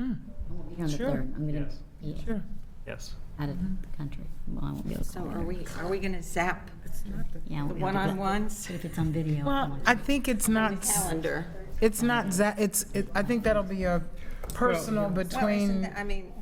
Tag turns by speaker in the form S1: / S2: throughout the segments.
S1: I won't be here on the
S2: Hmm. Sure.
S1: third. I'm going to
S3: Yes.
S1: be
S2: Sure.
S3: Yes.
S1: out of the country. Well, I won't be able to.
S4: So
S1: call
S4: are
S1: in.
S4: we, are we going to zap
S1: Yeah, I won't
S4: the
S1: be able to do that.
S4: one-on-ones?
S1: But If it's on video.
S2: Well, I think it's not,
S4: Calendar.
S2: it's not, za- it's, it- I think that'll be a personal
S4: Well, isn't
S2: between,
S4: that- I mean,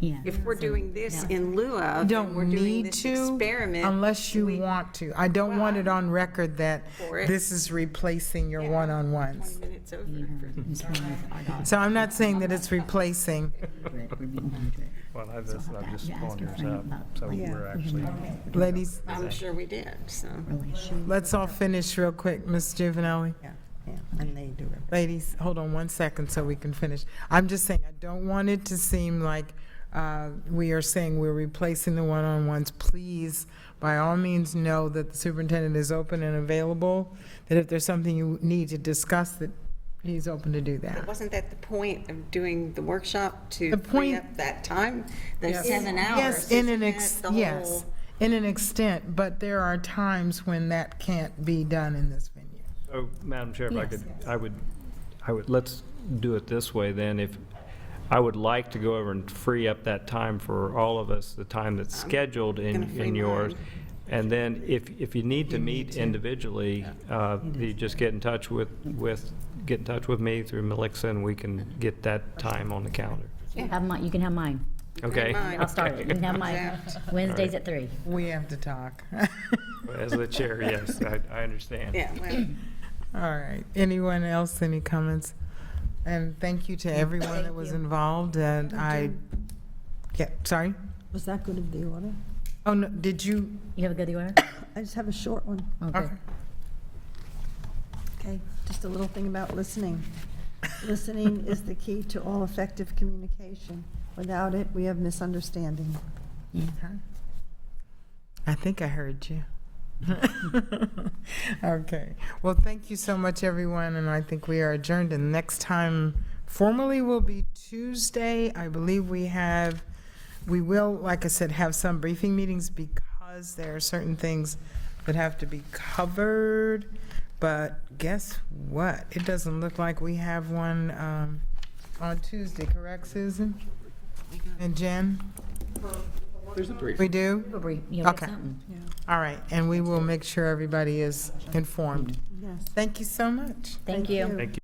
S1: Yeah.
S4: if we're doing this in lieu
S2: You
S4: of, and we're
S2: don't
S4: doing
S2: need
S4: this
S2: to
S4: experiment,
S2: unless you want to. I don't want it on record that
S4: For it.
S2: this is replacing your
S4: Yeah. 20
S2: one-on-ones.
S4: minutes over.
S1: You
S4: for-
S1: heard Ms. Brown's argument.
S2: So I'm not saying that it's replacing.
S1: We're being hundred.
S3: Well, I, that's,
S1: I'll have
S3: I'm
S1: to
S3: just
S1: ask
S3: pulling
S1: your
S3: yours
S1: friend
S3: up,
S1: about,
S3: so
S1: like,
S3: we're actually.
S2: Ladies,
S4: I'm sure we did, so.
S1: Relation.
S2: let's all finish real quick, Ms. Juvenile.
S5: Yeah, yeah, and they do it.
S2: Ladies, hold on one second so we can finish. I'm just saying, I don't want it to seem like uh, we are saying we're replacing the one-on-ones. Please, by all means, know that the superintendent is open and available, that if there's something you need to discuss, that he's open to do that.
S4: Wasn't that the point of doing the workshop to
S2: The
S4: free
S2: point-
S4: up that time, those seven hours?
S2: Yes, in an
S4: Isn't that
S2: ex,
S4: the whole-
S2: yes, in an extent, but there are times when that can't be done in this venue.
S3: So, Madam Chair, if I
S1: Yes.
S3: could, I would, I would, let's do it this way then. If, I would like to go over and free up that time for all of us, the time that's scheduled
S4: gonna
S3: in,
S4: free
S3: in yours.
S4: mine.
S3: And then if, if you need to meet individually, uh, you just get in touch with, with, get in touch with me through Melissa and we can get that time on the calendar.
S1: You Have mine, you can have mine.
S3: Okay?
S4: mine.
S1: I'll start it. You can have mine. Wednesdays at three.
S2: We have to talk.
S3: As the chair, yes, I, I understand.
S4: Yeah, well,
S2: All right. Anyone else, any comments? And thank you to everyone that was involved, and I, yeah, sorry?
S5: Was that good of the order?
S2: Oh, no, did you,
S1: You have a good order?
S5: I just have a short one,
S1: Okay.
S2: okay.
S5: okay? Just a little thing about listening. Listening is the key to all effective communication. Without it, we have misunderstanding.
S2: I think I heard you. Okay. Well, thank you so much, everyone, and I think we are adjourned. And next time formally will be Tuesday. I believe we have, we will, like I said, have some briefing meetings because there are certain things that have to be covered. But guess what? It doesn't look like we have one um, on Tuesday, correct, Susan? And Jen? There's a brief. We do?
S1: We'll bring- You'll get
S2: Okay.
S1: something.
S2: All right, and we will make sure everybody is informed.
S5: Yes.
S2: Thank you so much.
S1: Thank you.
S3: Thank you.